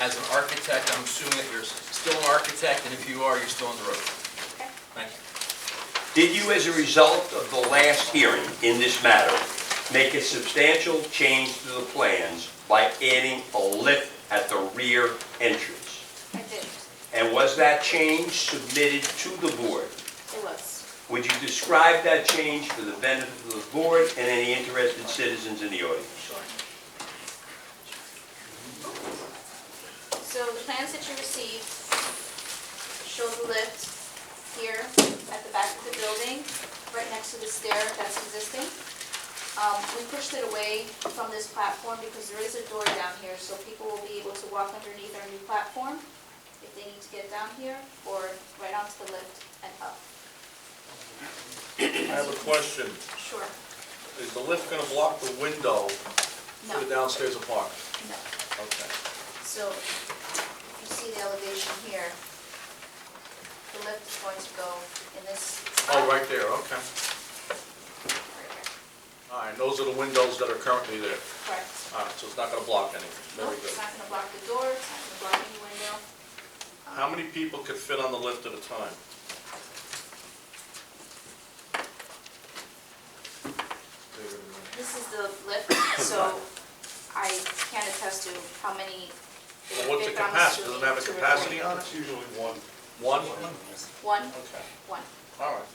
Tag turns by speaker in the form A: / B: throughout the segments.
A: As an architect, I'm assuming that you're still an architect, and if you are, you're still on the road. Thank you.
B: Did you, as a result of the last hearing in this matter, make a substantial change to the plans by adding a lift at the rear entrance?
C: I did,
B: And was that change submitted to the board?
C: it was.
B: Would you describe that change for the benefit of the board and any interested citizens in the audience?
C: So the plans that you received show the lift here at the back of the building, right next to the stair that's existing. Um, We pushed it away from this platform because there is a door down here, so people will be able to walk underneath our new platform if they need to get down here or right onto the lift and up.
D: I have a question.
C: Sure.
D: Is the lift going to block the window
C: No,
D: to the downstairs apartment?
C: no.
D: Okay.
C: So if you see the elevation here, the lift is going to go in this.
D: Oh, right there, okay.
C: Right here.
D: All right, those are the windows that are currently there.
C: Correct.
D: All right, so it's not going to block anything.
C: Nope,
D: Very
C: it's
D: good.
C: not going to block the door, it's not going to block any window.
D: How many people could fit on the lift at a time?
C: This is the lift, so I can't attest to how many.
D: Well, What's the
C: if I'm
D: capacity? Does it have a
C: assuming to
D: capacity
C: record.
D: on it? Usually one. One?
C: One,
D: Okay,
C: one.
D: all right.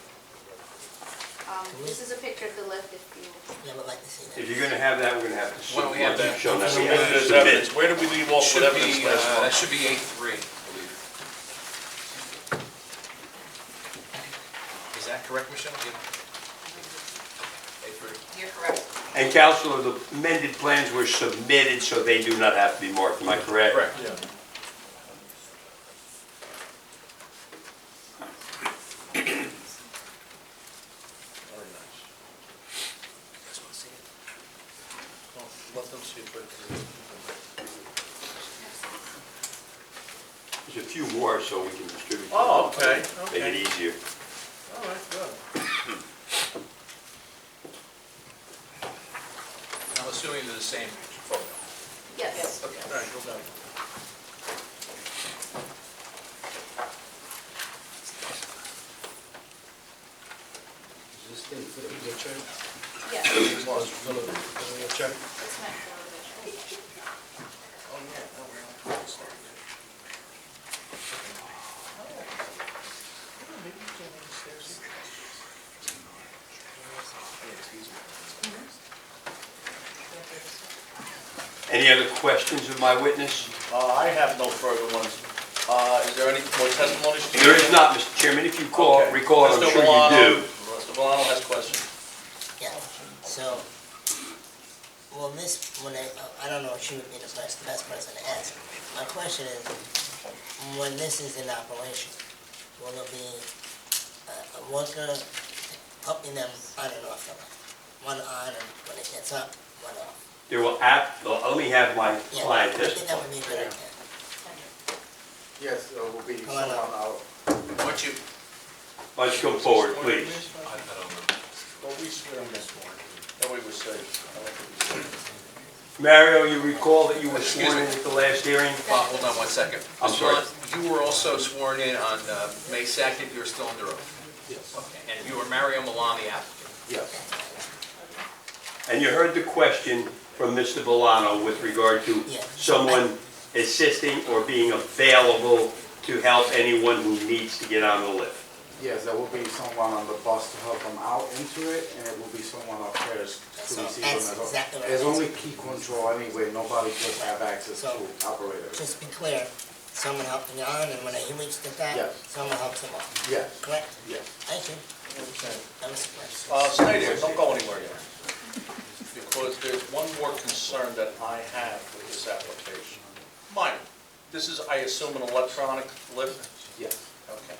C: Um, This is a picture of the lift if you,
E: Yeah, I would like to see that.
B: If you're going to have that, we're going to have to
A: Why don't we have
B: submit.
A: that?
B: Show that we have to
D: There's
B: submit.
D: evidence. Where do we leave off
A: Should
D: with evidence
A: be,
D: last
A: uh, that
D: month?
A: should be A three, I believe. Is that correct, Michelle? Yeah. A three.
C: you're correct.
B: And Counselor, the amended plans were submitted, so they do not have to be marked, am I correct?
A: Correct.
D: Yeah. Very nice. Well, Let them see it, but
B: There's a few more, so we can distribute. them.
D: Oh, okay,
B: Make it
D: okay.
B: easier.
D: All right, good.
A: I'm assuming they're the same photo.
C: Yes.
A: Okay.
D: All right, go down.
E: This thing for the wheelchair,
C: Yes,
E: this was for the wheelchair.
C: it's meant for a wheelchair.
B: Any other questions of my witness?
D: Uh, I have no further ones. Uh, Is there any more testimony? Steve?
B: There is not, Mr. Chairman, if you call,
D: Okay.
B: recall, I'm
D: Mr.
B: sure you
D: Valano-
B: do.
D: Mr. Valano has questions.
E: Yeah, so, well, this, when I, I don't know if she would be the best, the best person to ask. My question is, when this is in operation, will there be uh, a worker helping them on and off the line? One on and when it gets up, one off.
B: There will app, well, let me have my
E: Yeah,
B: client
E: I think that
B: testify.
E: would be a good idea.
F: Yes, there will be
E: Hello.
F: someone out.
A: Why don't you,
B: Why don't you come forward, please?
A: I I don't know.
D: Well, we swear on this one. That way we're safe. I like what you said.
B: Mario, you recall that you were
A: Excuse
B: sworn in
A: me.
B: at the last hearing?
A: Bob, hold on one second.
B: I'm
A: Mr.
B: sorry.
A: Lunt, You were also sworn in on uh, May 2nd, you were still under oath.
F: Yes.
A: Okay. And you were Mario Milan, the applicant.
F: Yes.
B: And you heard the question from Mr. Valano with regard to
E: Yeah.
B: someone assisting or being available to help anyone who needs to get on the lift.
F: Yes, there will be someone on the bus to help them out into it, and it will be someone upstairs
E: That's
F: to
E: all-
F: receive them.
E: that's
F: as well.
E: exactly what I
F: There's
E: was
F: only key control anyway, nobody just have access to
E: So-
F: operator.
E: Just be clear, someone helping on and when he reaches the top,
F: Yes.
E: someone helps him off,
F: Yes,
E: correct?
F: yes.
E: Thank you. That was the question.
D: Uh, stay there, don't go anywhere yet. Because there's one more concern that I have with this application. Mine, this is, I assume, an electronic lift?
F: Yes.
D: Okay.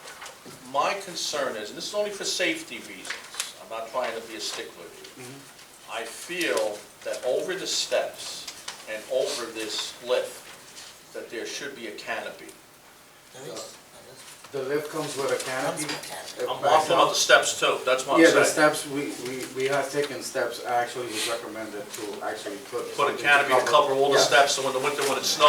D: My concern is, and this is only for safety reasons, I'm not trying to be a stickler here.
F: Mm-hmm.
D: I feel that over the steps and over this lift, that there should be a canopy.
E: There is-
F: The lift comes with a
E: Comes
F: canopy.
E: with a canopy.
F: It
D: I'm
F: backs
D: walking
F: up.
D: on the steps too, that's what I'm
F: Yeah,
D: saying.
F: the steps, we, we, we have taken steps, actually, was recommended to actually put.
D: Put a
F: something to
D: canopy to cover all the
F: Yes.
D: steps, so in the winter when it snows,